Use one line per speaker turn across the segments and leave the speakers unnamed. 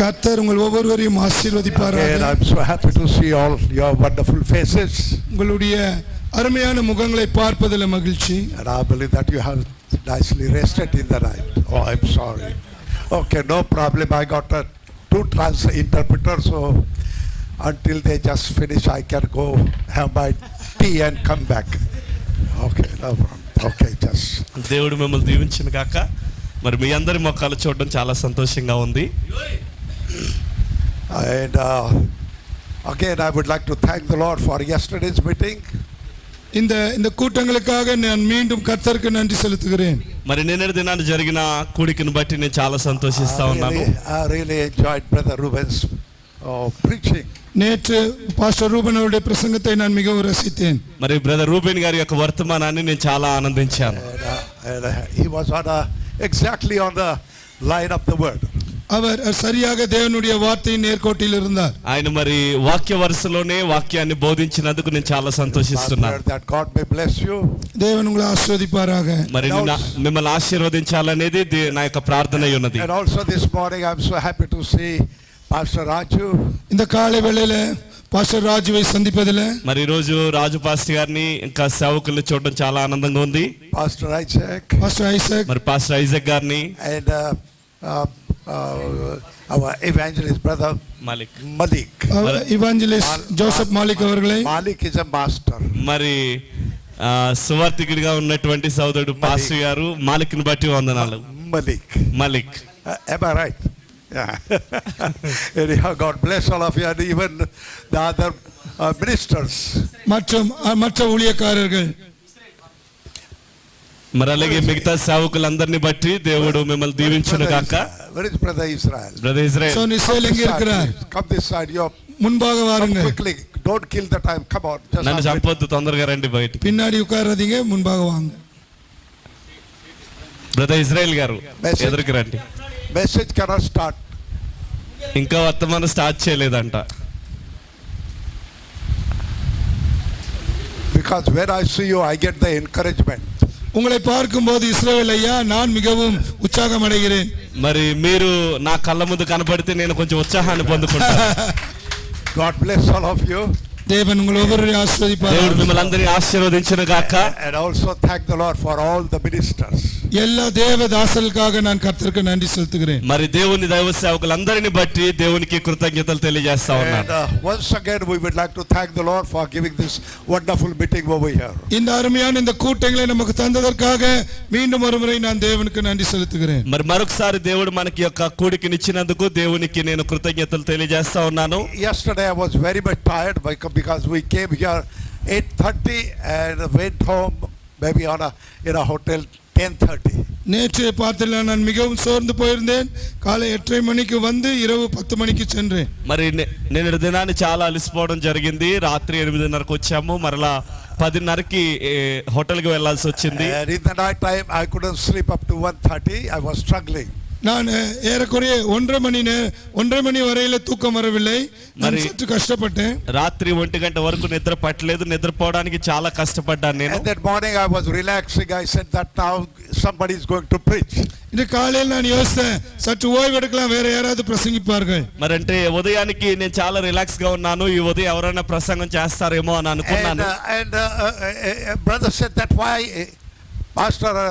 கர்த்தர் உங்கள் ஒவ்வொருவரையும் ஆசீர்வதிப்பாராக
Again, I'm so happy to see all your wonderful faces,
உங்களுடைய அருமையான முகங்களை பார்ப்பதில் மகிழ்ச்சி
and I believe that you have nicely rested in the night. Oh, I'm sorry. Okay, no problem. I got a two trans interpreter, so until they just finish, I can go have my tea and come back. Okay, no problem. Okay, just
దేవుడు మిమ్మల్ని దీవించిన కాక మరి మీ అందరి మొక్కలు చూడడం చాలా సంతోషంగా ఉంది
and uh, again, I would like to thank the Lord for yesterday's meeting.
இந்த இந்த கூட்டங்களுக்காக நான் மீண்டும் கர்த்தருக்கு நன்றி செலுத்துகிறேன்
మరి నిన్న దినాన్ని జరిగిన కూడికను బట్టి నేను చాలా సంతోషిస్తా
I
ఉన్నాను
really, I really enjoyed Brother Ruben's uh, preaching.
நேற்று பாஸ்டர் ரூபன் அவருடைய பிரசங்கத்தை நான் மிகவும் ரசித்தேன்
మరి బ్రదర్ రూబెన్ గారి యొక్క వర్తమానాన్ని నేను చాలా ఆనందించాను
And, uh, and, uh, he was on a, exactly on the line of the word.
அவர் சரியாக தேவனுடைய வார்த்தையின் நேர்கோட்டில் இருந்தார்
ఆయన మరి వాక్య వరుసలోనే వాక్యాన్ని బోధించినందుకు నేను చాలా
I
సంతోషిస్తున్నాను
prayed that God may bless you.
தேவன் உங்களை ஆஸ்வதிப்பாராக
మరి నిన్న మిమ్మల్ని ఆశీర్వదించాలనేది దే- నా యొక్క ప్రార్థన అయి ఉన్నది
And also this morning, I'm so happy to see Pastor Raju.
இந்த காலை வேளையில பாஸ்டர் ராஜுவை சந்திப்பதில்
మరి ఈరోజు రాజు పాస్టర్ గారిని ఇంకా సేవకుల్ని చూడడం చాలా ఆనందంగా ఉంది
Pastor Isaac,
பாஸ்டர் ஐசக்
మరి పాస్టర్ ఐజక్ గారిని
and uh, uh, uh, our evangelist brother
Malik
Malik.
Evangelist Joseph Malik அவர்களை
Malik is a master.
మరి ఆ, సువార్థికుడిగా ఉన్నటువంటి సోదరుడు పాసు గారు మాలిక్ని బట్టి వందనాలు
Malik.
Malik
Uh, am I right? Yeah. Anyhow, God bless all of you and even the other uh, ministers.
மற்றும் அஹ், மற்ற ஊழியக்காரர்கள்
మరి అలాగే మిగతా సేవకులందరినీ బట్టి దేవుడు మిమ్మల్ని దీవించును
Brother
గాక
Israel. Where is Brother Israel?
So
brother Israel
நிசேல் எங்க
This side,
இருக்கிறார்
please. Come this side, you
முன்பாக வாருங்க
quickly. Don't kill the time. Come on. Just
నన్ను
have it.
చంపొద్దు తొందరగా రండి బయటికి
பின்னாடி உட்காராதீங்க మున్భాగ வாங்க
బ్రదర్ ఇజ్రాయెల్ గారు
Message.
ఎదురుకి రండి
Message cannot start.
ఇంకా వర్తమానం స్టార్ట్ చేయలేదంట
Because when I see you, I get the encouragement.
உங்களை பார்க்கும்போது இஸ்ரவேல் ஐயா நான் மிகவும் உற்சாகம் அடைகிறேன்
మరి మీరు నా కళ్ళ ముందు కనపడితే నేను కొంచెం ఉత్సాహాన్ని పొందుకుంటాను
God bless all of you.
தேவன் உங்கள் ஒவ்வொரு
దేవుడు
ஆஸ்வதிப்பார்
మిమ్మల్ని అందరినీ ఆశీర్వదించును గాక
And also thank the Lord for all the ministers.
எல்லா தேவ தாசலுக்காக நான் கர்த்தருக்கு நன்றி செலுத்துகிறேன்
మరి దేవుని దైవ సేవకులందరినీ బట్టి దేవునికి కృతజ్ఞతలు తెలియజేస్తా
And
ఉన్నాను
uh, once again, we would like to thank the Lord for giving this wonderful meeting over here.
இந்த அருமையான இந்த கூட்டங்களை நமக்கு தந்ததற்காக மீண்டும் ஒருமுறை நான் தேவனுக்கு நன்றி செலுத்துகிறேன்
మరి మరొకసారి దేవుడు మనకి యొక్క కూడికినిచ్చినందుకు దేవునికి నేను కృతజ్ఞతలు తెలియజేస్తా ఉన్నాను
Yesterday, I was very much tired becau- because we came here 8.30 and went home maybe on a, in a hotel 10.30.
நேற்றைய பார்த்தல நான் மிகவும் சோர்ந்து போயிருந்தேன் காலை எட்டரை மணிக்கு வந்து இரவு பத்து மணிக்கு சென்றேன்
మరి నే- నేను దినాన్ని చాలా అలసిపోవడం జరిగింది రాత్రి ఎనిమిదిన్నరకు వచ్చాము మరలా పదిన్నరకి ఏ, హోటల్కి వెళ్ళాల్సి వచ్చింది
And in the night time, I couldn't sleep up to 1.30. I was struggling.
நான் அஹ், ஏறக்குறைய ஒன்றரை மணி நே- ஒன்றரை மணி வரையில தூக்கம் வரவில்லை நான்
மரி-
சற்று கஷ்டப்பட்டேன்
రాత్రి ఒంటి గంట వరకు నిద్ర పట్టలేదు నిద్రపోవడానికి చాలా కష్టపడ్డాను నేను
And that morning, I was relaxing. I said that now somebody is going to preach.
இன்று காலையில் நான் யோசித்தேன் சற்று ஓய்வு எடுக்கலாம் வேற யாராவது பிரசங்கிப்பார்கள்
మరంటే ఉదయానికి నేను చాలా రిలాక్స్ గా ఉన్నాను ఈ ఉదయం ఎవరైనా ప్రసంగం చేస్తారేమో అని
And,
అనుకున్నాను
uh, and uh, uh, uh, uh, brother said that why, uh, Pastor uh,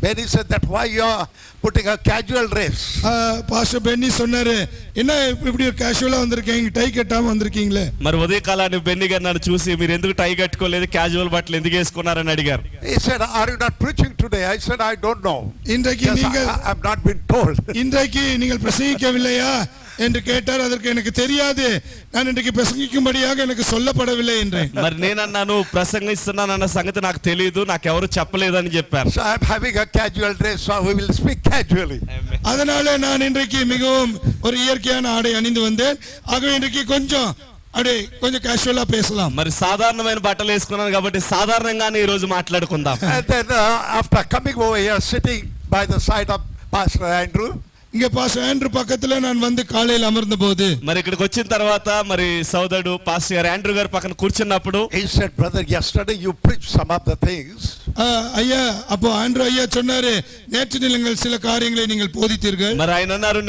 Benny said that why you are putting a casual dress.
ஆஹ், பாஸ்டர் பென்னி சொன்னாரு என்ன இப்ப- இப்படி ஒரு கேஷுவலா வந்திருக்கீங்க டை கட்டாம வந்திருக்கீங்களே
మరి ఉదయకాలాన్ని బెన్ని గారు నన్ను చూసి మీరు ఎందుకు టై కట్టుకోలేదు క్యాజువల్ బట్టలు ఎందుకు వేసుకున్నారని అడిగారు
He said, are you not preaching today? I said, I don't know.
இன்றைக்கு
Yes,
நீங்கள்
I, I- I've not been told.
இன்றைக்கு நீங்கள் பிரசங்கிக்கவில்லையா என்று கேட்டார் அதற்கு எனக்கு தெரியாது நான் இன்றைக்கு பிரசங்கிக்கும்படியாக எனக்கு சொல்லப்படவில்லை என்றேன்
మరి నేనన్నాను ప్రసంగిస్తున్నానన్న సంగతి నాకు తెలియదు నాకెవరు చెప్పలేదని చెప్పారు
So I'm having a casual dress, so we will speak casually.
அதனால நான் இன்றைக்கு மிகவும் ஒரு இயற்கையான ஆடை அணிந்து வந்தேன் ஆகவே இன்றைக்கு கொஞ்சம் அப்படியே கொஞ்சம் கேஷுவலா பேசலாம்
మరి సాధారణమైన బట్టలు వేసుకున్నాను కాబట్టి సాధారణంగానే ఈ రోజు మాట్లాడుకుందాం
And then uh, after coming over here, sitting by the side of Pastor Andrew,
இங்க பாஸ்டர் ஆண்ட்ரு பக்கத்துல நான் வந்து காலையில் அமர்ந்தபோது
మరి ఇక్కడికి వచ్చిన తర్వాత మరి సోదరుడు పాస్టర్ గారు యాండ్రూ గారు పక్కన కూర్చున్నప్పుడు
he said, brother, yesterday you preached some of the things.
ஆ, ஐயா அப்போ ஆண்ட்ரு ஐயா சொன்னாரு நேற்று நீங்கள் சில காரியங்களை நீங்கள் போதித்தீர்கள்
మరి ఆయన అన్నారు